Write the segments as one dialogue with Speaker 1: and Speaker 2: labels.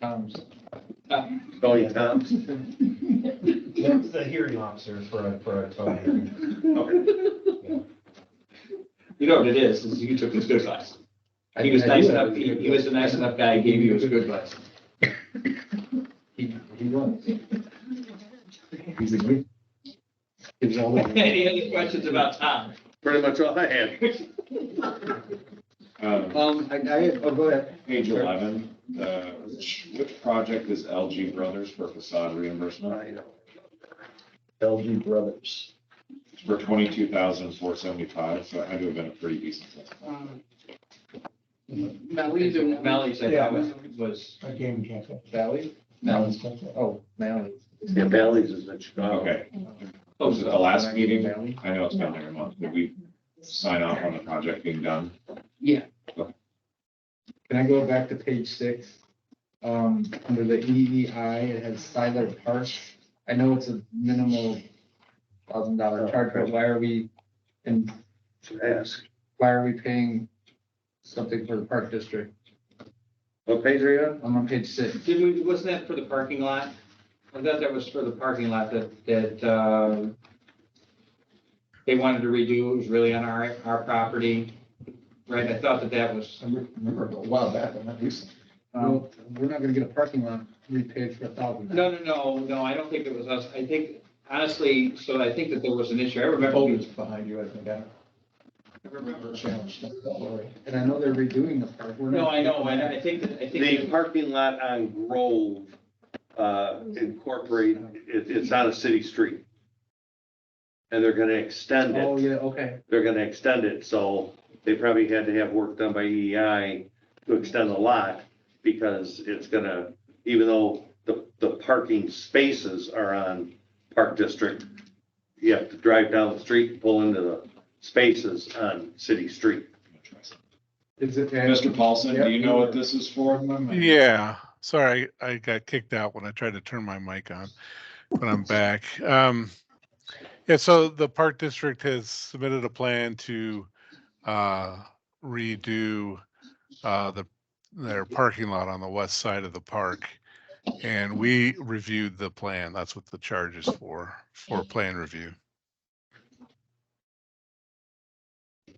Speaker 1: Tom's.
Speaker 2: Oh, yeah, Tom's.
Speaker 3: That's the hearing officer for a, for a total hearing.
Speaker 4: You know what it is, is you took his good advice. He was nice enough, he, he was a nice enough guy, he gave you his good advice.
Speaker 1: He, he was. He's a good. He's always.
Speaker 4: Any other questions about Tom?
Speaker 2: Pretty much all I had.
Speaker 5: Um,
Speaker 1: Um, I, I, oh, go ahead.
Speaker 5: Page 11, uh, which which project is LG Brothers for facade reimbursement
Speaker 1: LG Brothers.
Speaker 5: It's for 22,475? So it had to have been a pretty decent. one.
Speaker 6: Um, Valley, do-
Speaker 4: Valley said that was, was
Speaker 3: I gave him cancel.
Speaker 1: Valley?
Speaker 3: Alan's cancel.
Speaker 1: Oh, Valley.
Speaker 2: Yeah, Bally's is in Chicago.
Speaker 5: Okay,
Speaker 4: Oh,
Speaker 5: was it the last meeting?
Speaker 1: Valley?
Speaker 5: I know it's been there a month, did we sign off on the project being done?
Speaker 1: Can I go back to page six? Um, under the EEI, it has Siler Park. I know it's a minimal thousand dollar charge, but why are we, and
Speaker 2: To ask.
Speaker 1: why are we paying something for the park district?
Speaker 2: What page are you on?
Speaker 1: I'm on page six.
Speaker 4: did we, wasn't that for the parking lot? I thought that was for the parking lot that, that, uh, they wanted to redo, it was really on our, our property, right? I thought that that was,
Speaker 1: I remember a while back, but not recent. Well, we're not gonna get a parking lot repaid for a thousand.
Speaker 4: no, no, no, no, I don't think it was us. I think, honestly, so I think that there was an issue. I remember,
Speaker 3: behind you, I think,
Speaker 4: I
Speaker 3: I
Speaker 4: remember.
Speaker 3: challenged that, don't worry.
Speaker 1: And I know they're redoing the park. We're
Speaker 4: No,
Speaker 1: not-
Speaker 4: I know, and I think that, I think.
Speaker 2: The parking lot on Grove uh, incorporate, it, it's on a city street. And they're gonna extend
Speaker 1: Oh,
Speaker 2: it,
Speaker 1: yeah, okay.
Speaker 2: they're gonna extend it, so they probably had to have work done by EEI to extend the lot because it's gonna, even though the, the parking spaces are on Park District, you have to drive down the street, pull into the spaces on city street.
Speaker 1: Is it?
Speaker 5: Mr. Paulson, do you know what this is for?
Speaker 7: Yeah, sorry, I got kicked out when I tried to turn my mic on, but I'm back. Um, yeah, so the Park District has submitted a plan to, uh, redo, uh, the, their parking lot on the west side of the park. And we reviewed the plan. That's what the charge is for, for plan review.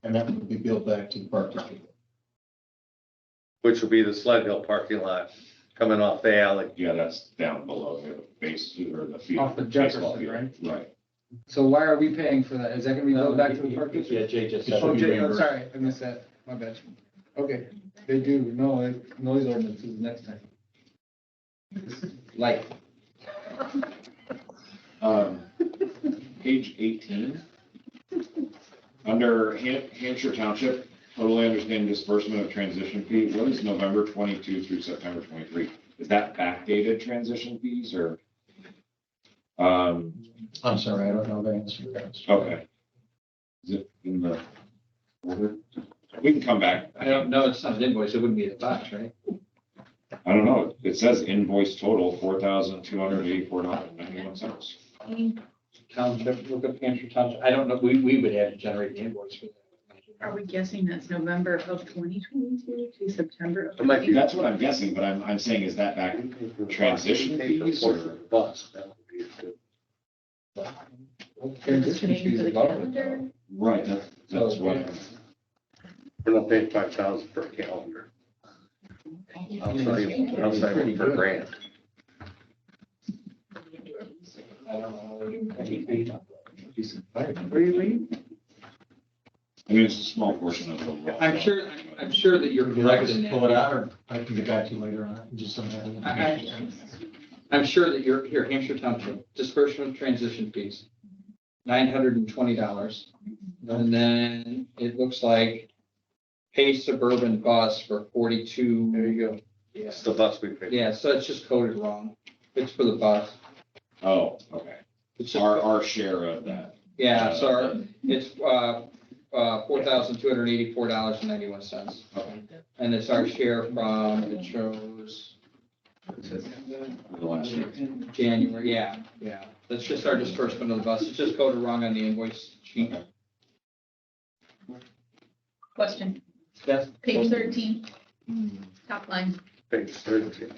Speaker 3: And that would be billed back to the park district.
Speaker 2: which will be the Sled Hill parking lot coming off the alley.
Speaker 5: Yeah, that's down below here, the base, or the field.
Speaker 1: Off the
Speaker 5: baseball
Speaker 1: Jefferson, right?
Speaker 5: field. Right.
Speaker 1: So why are we paying for that? Is that gonna be
Speaker 4: No,
Speaker 1: billed back to the
Speaker 4: you-
Speaker 1: park
Speaker 4: you-
Speaker 1: district?
Speaker 4: Yeah, Jay just
Speaker 3: It
Speaker 4: said.
Speaker 3: should
Speaker 1: Oh,
Speaker 4: it.
Speaker 3: be
Speaker 1: Jay, I'm
Speaker 3: reimbursed.
Speaker 1: sorry, I missed that. My bad. Okay, they do, no, it- noise ordinance is next time. Like,
Speaker 5: Um, Page 18. Under Han- Hampshire Township, totally understand disbursement of transition fee. What is November 22 through September 23? Is that backdated transition fees or? Um,
Speaker 3: I'm sorry, I don't know the answer to that.
Speaker 5: Okay. Is it in the order? We can come back.
Speaker 4: I don't know, it's not an invoice, it wouldn't be a box, right?
Speaker 5: I don't know. It says invoice total $4,284.91.
Speaker 4: Township, look up Hampshire Township, I don't know, we, we would have to generate the invoice for
Speaker 8: Are
Speaker 4: that.
Speaker 8: we guessing that's November of twenty twenty-two to September of?
Speaker 2: It might be-
Speaker 5: That's what I'm guessing, but I'm, I'm saying is that back, Transition fees or-
Speaker 2: Bus, that would be good.
Speaker 1: transition fees is government.
Speaker 8: calendar?
Speaker 5: right, that's, that's what. I'm-
Speaker 2: We're not paying five thousand per calendar. Outside, outside one per grant.
Speaker 4: I don't know.
Speaker 1: Where you leaving?
Speaker 5: I mean, it's a small portion of the law.
Speaker 4: I'm sure, I'm- I'm sure that you're correct in
Speaker 3: Pull it
Speaker 4: that.
Speaker 3: out, or I can get back to you later on, it, just don't have it.
Speaker 4: I- I- I'm sure that you're, here, Hampshire Township, dispersion of transition fees, nine hundred and twenty dollars. And then it looks like pay suburban bus for forty-two. There you go. Yeah,
Speaker 2: It's the bus we pay.
Speaker 4: yeah, so it's just coded wrong. It's for the bus.
Speaker 5: Oh, okay.
Speaker 4: It's just-
Speaker 5: Our, our share of that.
Speaker 4: Yeah, so it's, uh, uh, four thousand two hundred eighty-four dollars and ninety-one cents.
Speaker 5: Okay.
Speaker 4: And it's our share from, it shows
Speaker 5: The last year.
Speaker 4: January, yeah, yeah. That's just our disbursement of the bus. It just coded wrong on the invoice sheet.
Speaker 8: Question,
Speaker 4: That's
Speaker 8: page thirteen, top line.
Speaker 2: Page thirteen.